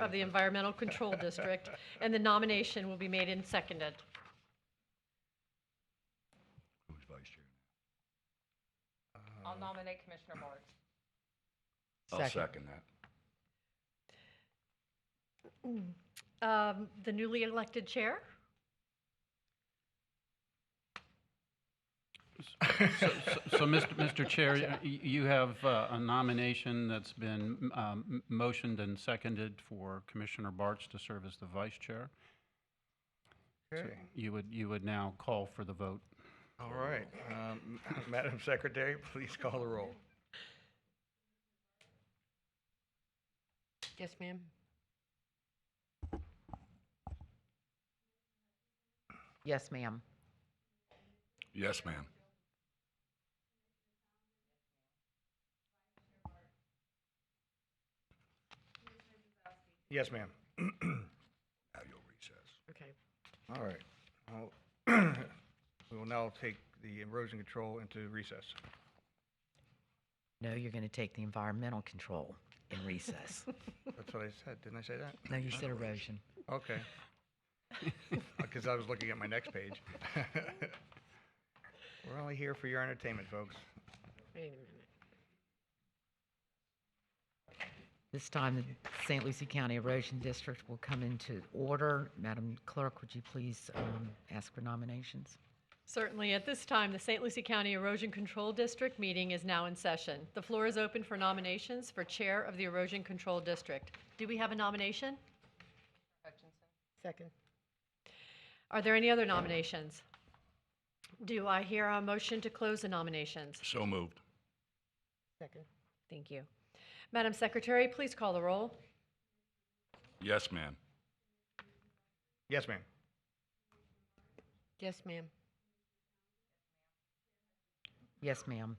of the Environmental Control District, and the nomination will be made and seconded. Who's vice chair? I'll nominate Commissioner Board. I'll second that. Mm. Um, The newly elected chair? So, so- so, Mr. Mr. Chair, y- you have uh, a nomination that's been um, m- motioned and seconded for Commissioner Bartz to serve as the vice chair. So Okay, You would, you would now call for the vote. all right. Um, Madam Secretary, please call the roll. Yes, ma'am. Yes, ma'am. Yes, ma'am. Yes, ma'am. Now you'll recess. Okay. All right. Well, We will now take the erosion control into recess. No, you're going to take the environmental control in recess. That's what I said, didn't I say that? No, you said erosion. Okay. Because I was looking at my next page. We're only here for your entertainment, folks. Wait a minute. This time, the St. Lucie County Erosion District will come into order. Madam Clerk, would you please um, ask for nominations? Certainly, at this time, the St. Lucie County Erosion Control District meeting is now in session. The floor is open for nominations for Chair of the Erosion Control District. Do we have a nomination? Hutchinson. Second. Are there any other nominations? Do I hear a motion to close the nominations? So moved. Second. Thank you. Madam Secretary, please call the roll. Yes, ma'am. Yes, ma'am. Yes, ma'am. Yes, ma'am.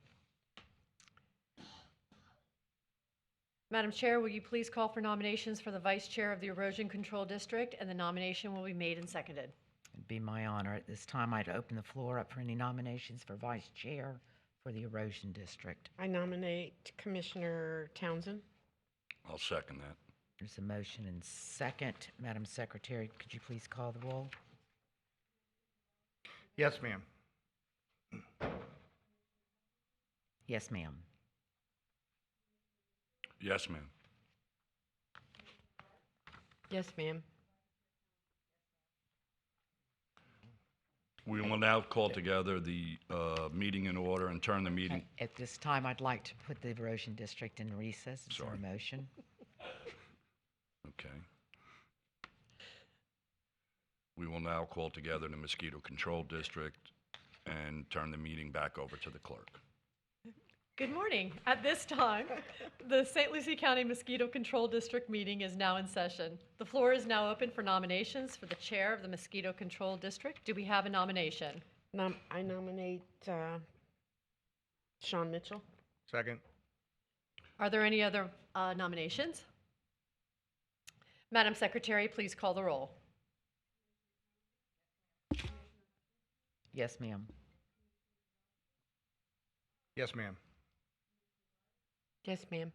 Madam Chair, will you please call for nominations for the Vice Chair of the Erosion Control District, and the nomination will be made and seconded. It'd be my honor. At this time, I'd open the floor up for any nominations for Vice Chair for the Erosion District. I nominate Commissioner Townsend. I'll second that. There's a motion and second. Madam Secretary, could you please call the roll? Yes, ma'am. Yes, ma'am. Yes, ma'am. Yes, ma'am. We will now call together the uh, meeting in order and turn the meeting. At this time, I'd like to put the erosion district in recess. Is there a Sorry. motion? Okay. We will now call together the mosquito control district and turn the meeting back over to the clerk. Good morning. At this time, the St. Lucie County Mosquito Control District meeting is now in session. The floor is now open for nominations for the Chair of the Mosquito Control District. Do we have a nomination? Nom- I nominate uh, Sean Mitchell. Second. Are there any other uh, nominations? Madam Secretary, please call the roll. Yes, ma'am. Yes, ma'am. Yes, ma'am.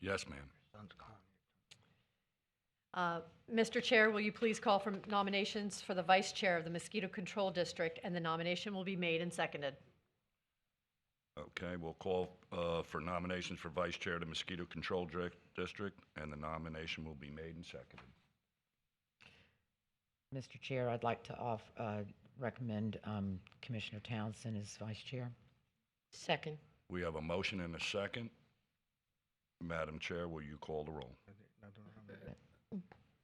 Yes, ma'am. Uh, Mr. Chair, will you please call for nominations for the Vice Chair of the Mosquito Control District, and the nomination will be made and seconded. Okay, we'll call uh, for nominations for vice chair of the mosquito control Dir- district, and the nomination will be made and seconded. Mr. Chair, I'd like to off, uh, recommend, um, Commissioner Townsend as vice chair. Second. We have a motion and a second. Madam Chair, will you call the roll?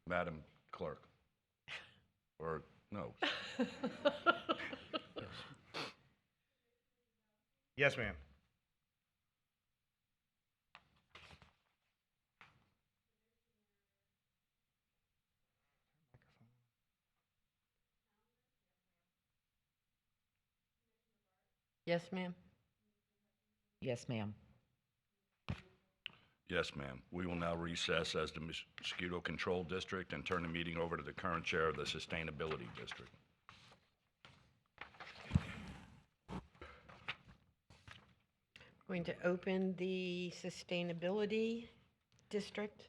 Madam Clerk? Or, no, Yes, ma'am. Yes, ma'am. Yes, ma'am. yes, ma'am. We will now recess as the mosquito control district and turn the meeting over to the current chair of the sustainability district. Going to open the Sustainability District.